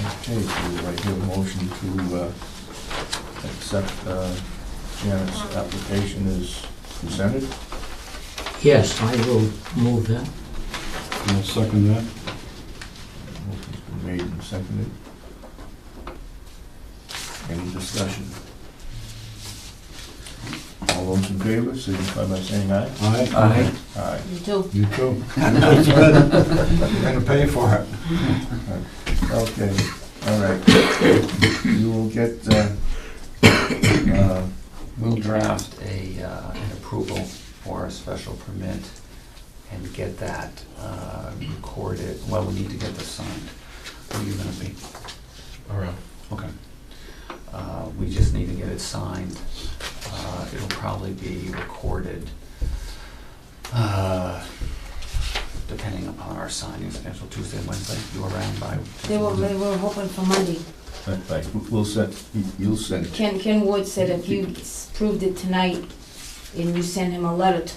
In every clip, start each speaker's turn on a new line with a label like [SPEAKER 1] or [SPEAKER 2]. [SPEAKER 1] Okay, so I hear a motion to uh, accept uh, Janet's application as presented.
[SPEAKER 2] Yes, I will move that.
[SPEAKER 3] I'll second that.
[SPEAKER 1] Motion's been made and seconded. Any discussion? All those in favor, signify by saying aye.
[SPEAKER 3] Aye.
[SPEAKER 2] Aye.
[SPEAKER 1] Aye.
[SPEAKER 4] You do.
[SPEAKER 3] You too. That's good. You're gonna pay for it.
[SPEAKER 1] Okay, all right. You will get, uh, uh,
[SPEAKER 5] We'll draft a, uh, an approval for a special permit and get that uh, recorded, well, we need to get this signed. Where are you gonna be?
[SPEAKER 6] Around.
[SPEAKER 5] Okay. Uh, We just need to get it signed. Uh, It'll probably be recorded, uh, depending upon our signing schedule, Tuesday, Wednesday, you around by?
[SPEAKER 4] They were, they were hoping for Monday.
[SPEAKER 1] that's right, we'll send, you'll send it.
[SPEAKER 4] Ken, Ken Wood said if you s- proved it tonight and you send him a letter, t-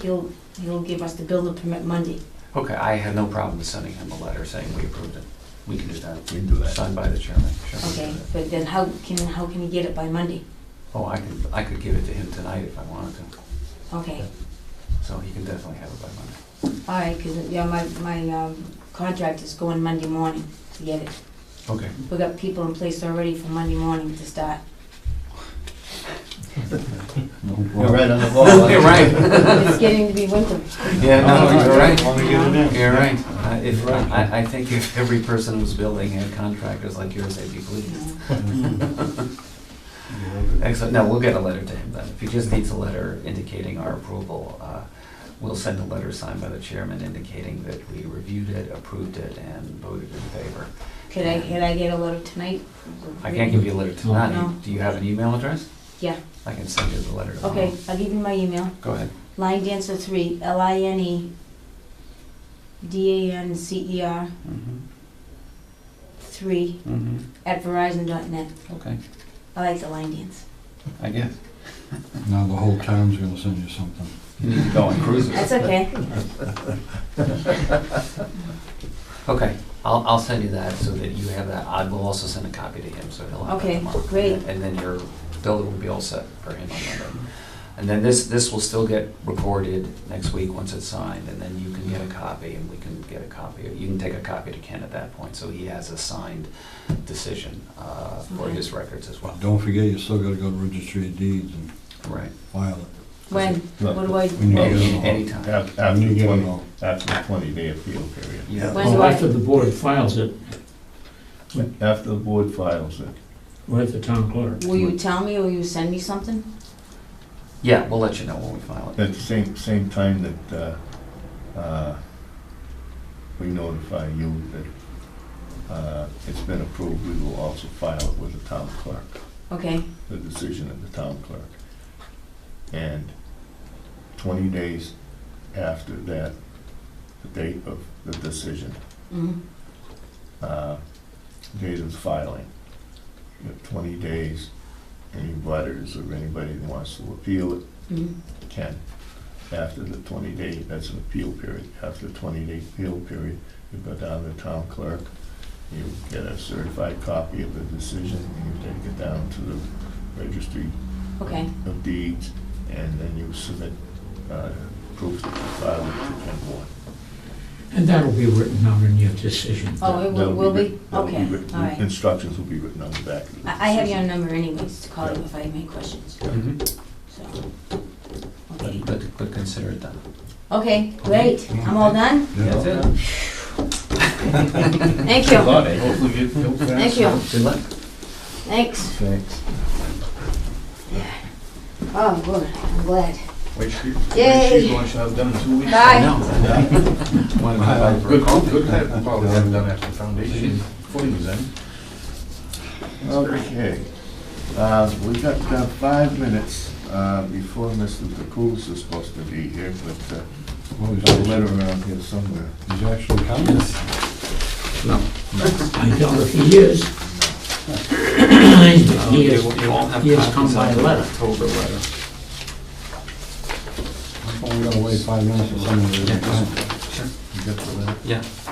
[SPEAKER 4] he'll, he'll give us the building permit Monday.
[SPEAKER 5] Okay, I have no problem sending him a letter saying we approved it. We can do that.
[SPEAKER 1] We can do that.
[SPEAKER 5] Signed by the chairman. Sure, we can
[SPEAKER 4] Okay,
[SPEAKER 5] do that.
[SPEAKER 4] but then how can, how can he get it by Monday?
[SPEAKER 5] Oh, I could, I could give it to him tonight if I wanted to,
[SPEAKER 4] Okay,
[SPEAKER 5] so he can definitely have it by Monday.
[SPEAKER 4] all right, because, yeah, my, my um, contract is going Monday morning to get it.
[SPEAKER 5] Okay.
[SPEAKER 4] We got people in place already for Monday morning to start.
[SPEAKER 1] You're right on the ball.
[SPEAKER 5] You're right, Oh,
[SPEAKER 4] It's getting to be winter.
[SPEAKER 5] yeah,
[SPEAKER 1] Oh,
[SPEAKER 5] no, you're right,
[SPEAKER 3] Wanna get it in?
[SPEAKER 5] you're right. Uh, If, I, I think if every person was building had contractors like yours, they'd be
[SPEAKER 4] you
[SPEAKER 5] pleased.
[SPEAKER 4] know.
[SPEAKER 5] Excellent, no, we'll get a letter to him then. If he just needs a letter indicating our approval, uh, we'll send a letter signed by the chairman indicating that we reviewed it, approved it, and voted in favor.
[SPEAKER 4] Could I, could I get a letter tonight?
[SPEAKER 5] I can't give you a letter
[SPEAKER 4] No.
[SPEAKER 5] tonight. Do you have an email address?
[SPEAKER 4] Yeah.
[SPEAKER 5] I can send you the letter tomorrow.
[SPEAKER 4] Okay, I'll give you my email.
[SPEAKER 5] Go ahead.
[SPEAKER 4] Line Dancer three, L I N E D A N C E R
[SPEAKER 5] Mhm.
[SPEAKER 4] three
[SPEAKER 5] Mm-hmm.
[SPEAKER 4] at Verizon dot net.
[SPEAKER 5] Okay,
[SPEAKER 4] I like the line dance.
[SPEAKER 5] I guess.
[SPEAKER 3] Now the whole town's gonna send you something.
[SPEAKER 5] You need to go on cruises.
[SPEAKER 4] That's okay.
[SPEAKER 5] Okay, I'll, I'll send you that so that you have that. I will also send a copy to him, so he'll have that
[SPEAKER 4] Okay,
[SPEAKER 5] tomorrow.
[SPEAKER 4] great.
[SPEAKER 5] And then your builder will be all set for him on Monday. And then this, this will still get recorded next week once it's signed, and then you can get a copy, and we can get a copy. You can take a copy to Ken at that point, so he has a signed decision uh, for
[SPEAKER 4] Okay.
[SPEAKER 5] his records as well.
[SPEAKER 3] Don't forget, you still gotta go to registry of deeds and
[SPEAKER 5] Right.
[SPEAKER 3] file it.
[SPEAKER 4] When? What do I,
[SPEAKER 3] When you get it all.
[SPEAKER 5] Anytime.
[SPEAKER 1] Af- After
[SPEAKER 3] When you get it
[SPEAKER 1] twenty,
[SPEAKER 3] all.
[SPEAKER 1] after the twenty-day appeal period.
[SPEAKER 5] Yeah.
[SPEAKER 4] When's
[SPEAKER 2] Well,
[SPEAKER 4] what?
[SPEAKER 2] After the board files it,
[SPEAKER 1] After the board files it.
[SPEAKER 2] with the town clerk.
[SPEAKER 4] will you tell me or will you send me something?
[SPEAKER 5] Yeah, we'll let you know when we file it.
[SPEAKER 1] At the same, same time that, uh, uh, we notify you that, uh, it's been approved, we will also file it with the town clerk,
[SPEAKER 4] Okay,
[SPEAKER 1] the decision of the town clerk. And twenty days after that, the date of the decision,
[SPEAKER 4] mhm,
[SPEAKER 1] uh, date of filing. You have twenty days, any letters or anybody that wants to appeal it
[SPEAKER 4] mhm,
[SPEAKER 1] can. After the twenty day, that's an appeal period, after the twenty day appeal period, you go down to the town clerk, you get a certified copy of the decision, and you take it down to the registry
[SPEAKER 4] okay,
[SPEAKER 1] of deeds, and then you submit, uh, proof that you filed it to Ken Ward.
[SPEAKER 2] And that'll be written down in your decision.
[SPEAKER 4] Oh, it will-
[SPEAKER 1] That'll
[SPEAKER 4] will be?
[SPEAKER 1] writ- that'll
[SPEAKER 4] Okay,
[SPEAKER 1] written-
[SPEAKER 4] all right.
[SPEAKER 1] Instructions will be written on the back of the decision.
[SPEAKER 4] I, I have your number anyways to call you if I have any questions,
[SPEAKER 5] Mhm.
[SPEAKER 6] Mm-hmm.
[SPEAKER 4] so. Okay,
[SPEAKER 5] But, but- but consider it done.
[SPEAKER 4] okay, great, I'm all done,
[SPEAKER 5] That's it.
[SPEAKER 4] thank you,
[SPEAKER 1] Lot, eh?
[SPEAKER 4] thank you,
[SPEAKER 5] Good luck.
[SPEAKER 4] thanks.
[SPEAKER 1] Thanks.
[SPEAKER 4] Oh, good, I'm glad.
[SPEAKER 6] Wait, she,
[SPEAKER 4] Yay.
[SPEAKER 6] wait, she's going, she'll have done in two weeks.
[SPEAKER 4] Bye.
[SPEAKER 5] I know. Wanna go out for a
[SPEAKER 6] Good,
[SPEAKER 5] coffee?
[SPEAKER 6] good, good, well, we haven't done after the foundation, fully was in.
[SPEAKER 1] Okay. Uh, We got uh, five minutes uh, before Mr. DeCruz is supposed to be here, but uh,
[SPEAKER 3] Well,
[SPEAKER 1] there's a
[SPEAKER 3] he's
[SPEAKER 1] letter
[SPEAKER 3] actually-
[SPEAKER 1] around here somewhere.
[SPEAKER 3] He's actually coming.
[SPEAKER 2] I doubt if he is. He
[SPEAKER 5] Uh, You won't-
[SPEAKER 2] is,
[SPEAKER 5] you won't have
[SPEAKER 2] he has
[SPEAKER 5] copies
[SPEAKER 2] come by
[SPEAKER 5] until
[SPEAKER 2] letter.
[SPEAKER 5] October letter.
[SPEAKER 3] Only gotta wait five minutes for someone to.
[SPEAKER 5] Sure.
[SPEAKER 1] You got the letter?
[SPEAKER 5] Yeah,